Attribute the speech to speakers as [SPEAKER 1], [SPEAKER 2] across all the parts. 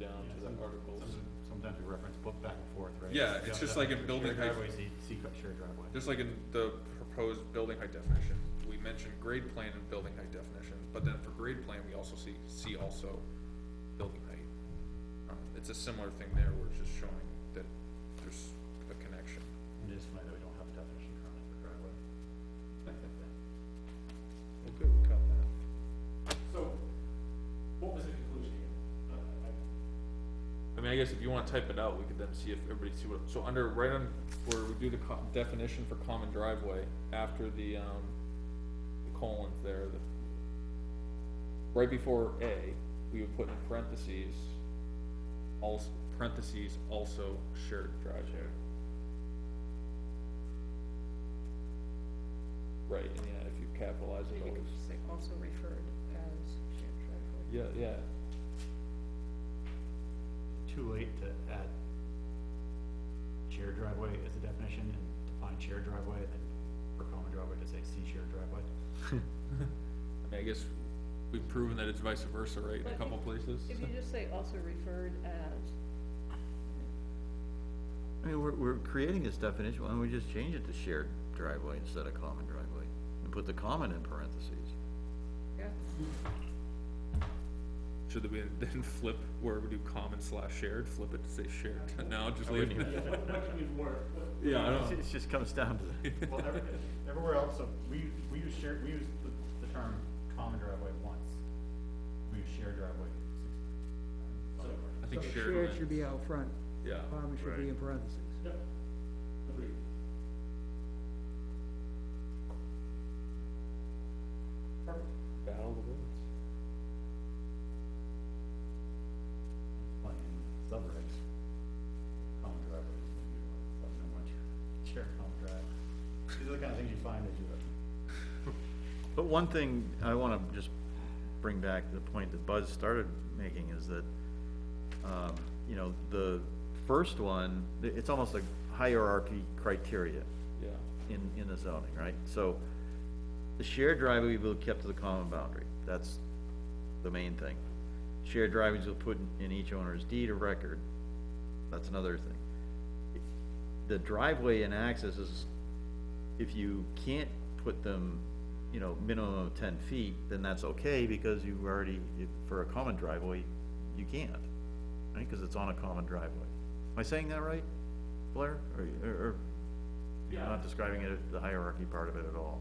[SPEAKER 1] down to the articles.
[SPEAKER 2] Sometimes we reference book back and forth, right?
[SPEAKER 3] Yeah, it's just like in building
[SPEAKER 2] Shared
[SPEAKER 3] height.
[SPEAKER 2] driveway, Z, C, shared driveway.
[SPEAKER 3] Just like in the proposed building height definition, we mentioned grade plane and building height definition, but then for grade plane, we also see, see also building height. Um, It's a similar thing there, where it's just showing that there's a connection.
[SPEAKER 2] It is funny that we don't have a definition currently for driveway.
[SPEAKER 3] Well, good, we caught that.
[SPEAKER 1] So, what was the conclusion here? Uh, I-
[SPEAKER 3] I mean, I guess if you wanna type it out, we could then see if everybody see what, so under, right on, where we do the co- definition for common driveway, after the, um, the colons there, the, right before A, we would put in parentheses, also, parentheses, also shared driveway. Right, and yeah, if you capitalize it
[SPEAKER 4] Maybe you
[SPEAKER 3] always,
[SPEAKER 4] could just say also referred as shared driveway.
[SPEAKER 3] yeah, yeah,
[SPEAKER 2] Too late to add shared driveway as a definition and define shared driveway and then for common driveway to say C shared driveway.
[SPEAKER 3] I mean, I guess we've proven that it's vice versa, right, in
[SPEAKER 4] But
[SPEAKER 3] a
[SPEAKER 4] if-
[SPEAKER 3] couple places.
[SPEAKER 4] If you just say also referred as,
[SPEAKER 5] I mean, we're, we're creating this definition, why don't we just change it to shared driveway instead of common driveway? And put the common in parentheses.
[SPEAKER 4] yeah,
[SPEAKER 3] Should we then flip where we do common slash shared, flip it to say shared? No, just leave it.
[SPEAKER 1] What, what can we work, what,
[SPEAKER 3] Yeah, I
[SPEAKER 2] It's-
[SPEAKER 3] don't,
[SPEAKER 2] It just comes down to. Well, every- everywhere else, so we, we use shared, we use the, the term common driveway once, we use shared driveway. six times.
[SPEAKER 3] I think
[SPEAKER 6] So
[SPEAKER 3] shared,
[SPEAKER 6] should be out front,
[SPEAKER 3] yeah.
[SPEAKER 6] common should be in parentheses.
[SPEAKER 1] yep, agreed. Perfect.
[SPEAKER 3] Battle of the words.
[SPEAKER 2] Like in subregs, common driveway is gonna be like, something that much, shared common drive. These are the kind of things you find as you,
[SPEAKER 5] But one thing I wanna just bring back to the point that Buzz started making is that, um, you know, the first one, th- it's almost like hierarchy criteria
[SPEAKER 3] Yeah,
[SPEAKER 5] in, in the zoning, right? So the shared driveway will be kept to the common boundary, that's the main thing. Shared driveways will put in each owner's deed of record, that's another thing. The driveway and access is, if you can't put them, you know, minimum of ten feet, then that's okay, because you already, if- for a common driveway, you can't, right, cause it's on a common driveway. Am I saying that right, Blair, or, or, or you're
[SPEAKER 1] Yeah.
[SPEAKER 5] not describing it, the hierarchy part of it at all.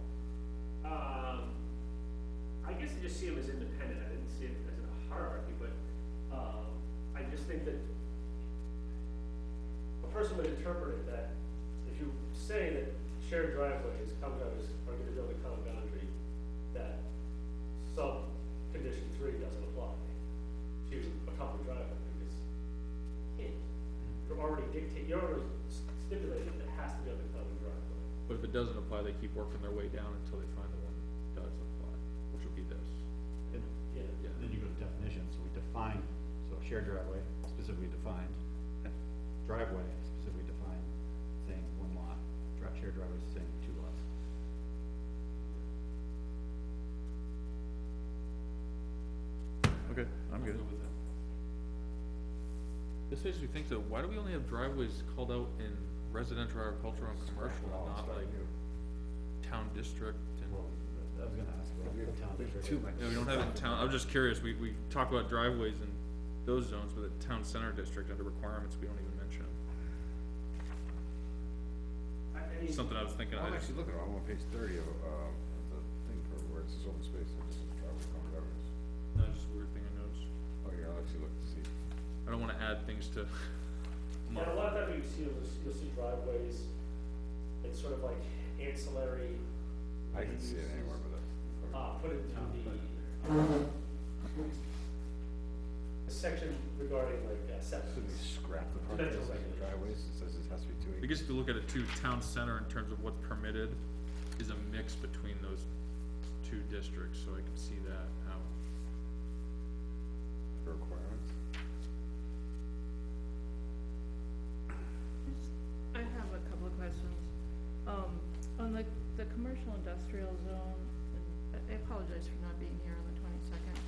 [SPEAKER 1] Um, I guess I just see them as independent, I didn't see it as a hierarchy, but, um, I just think that a person would interpret it that if you say that shared driveways, common driveways are gonna build a common boundary, that sub condition three doesn't apply to a common driveway, because it, you're already dictating, you're already stipulating that it has to be on the common driveway.
[SPEAKER 3] but if it doesn't apply, they keep working their way down until they find the one that does apply, which would be this.
[SPEAKER 2] and
[SPEAKER 1] Yeah.
[SPEAKER 3] Yeah,
[SPEAKER 2] then you go to definitions, so we define, so shared driveway specifically defined, driveway specifically defined, saying one lot, dri- shared driveway saying two lots.
[SPEAKER 5] Okay, I'm
[SPEAKER 3] I'll
[SPEAKER 5] good.
[SPEAKER 3] go with that. This makes me think though, why do we only have driveways called out in residential, agricultural, and commercial, and not like town district and?
[SPEAKER 2] Well, I was gonna ask about the town district.
[SPEAKER 3] Yeah, we don't have it in town, I'm just curious, we, we talk about driveways in those zones, but the town center district under requirements, we don't even mention them.
[SPEAKER 1] I, I mean,
[SPEAKER 3] Something I was thinking, I
[SPEAKER 7] I'm
[SPEAKER 3] just,
[SPEAKER 7] actually looking, I'm on page thirty of, um, the thing for where it says open space, and this is driveway common driveways.
[SPEAKER 3] no, just a weird thing I noticed.
[SPEAKER 7] Oh, yeah, Oh, I'll actually look to see.
[SPEAKER 3] I don't wanna add things to.
[SPEAKER 1] Yeah, a lot of times you see, you'll just- you'll see driveways, it's sort of like ancillary,
[SPEAKER 7] I can see it anywhere, but that's.
[SPEAKER 1] uh, put into the, the section regarding like uh,
[SPEAKER 7] Should we
[SPEAKER 1] setbacks.
[SPEAKER 7] scrap the part that says driveways, it says it has to be two
[SPEAKER 3] I
[SPEAKER 7] acres?
[SPEAKER 3] guess if you look at it too, town center in terms of what's permitted is a mix between those two districts, so I can see that, how,
[SPEAKER 7] Requirements.
[SPEAKER 4] I have a couple of questions. Um, on the, the commercial industrial zone, and I- I apologize for not being here on the twenty-second. Um,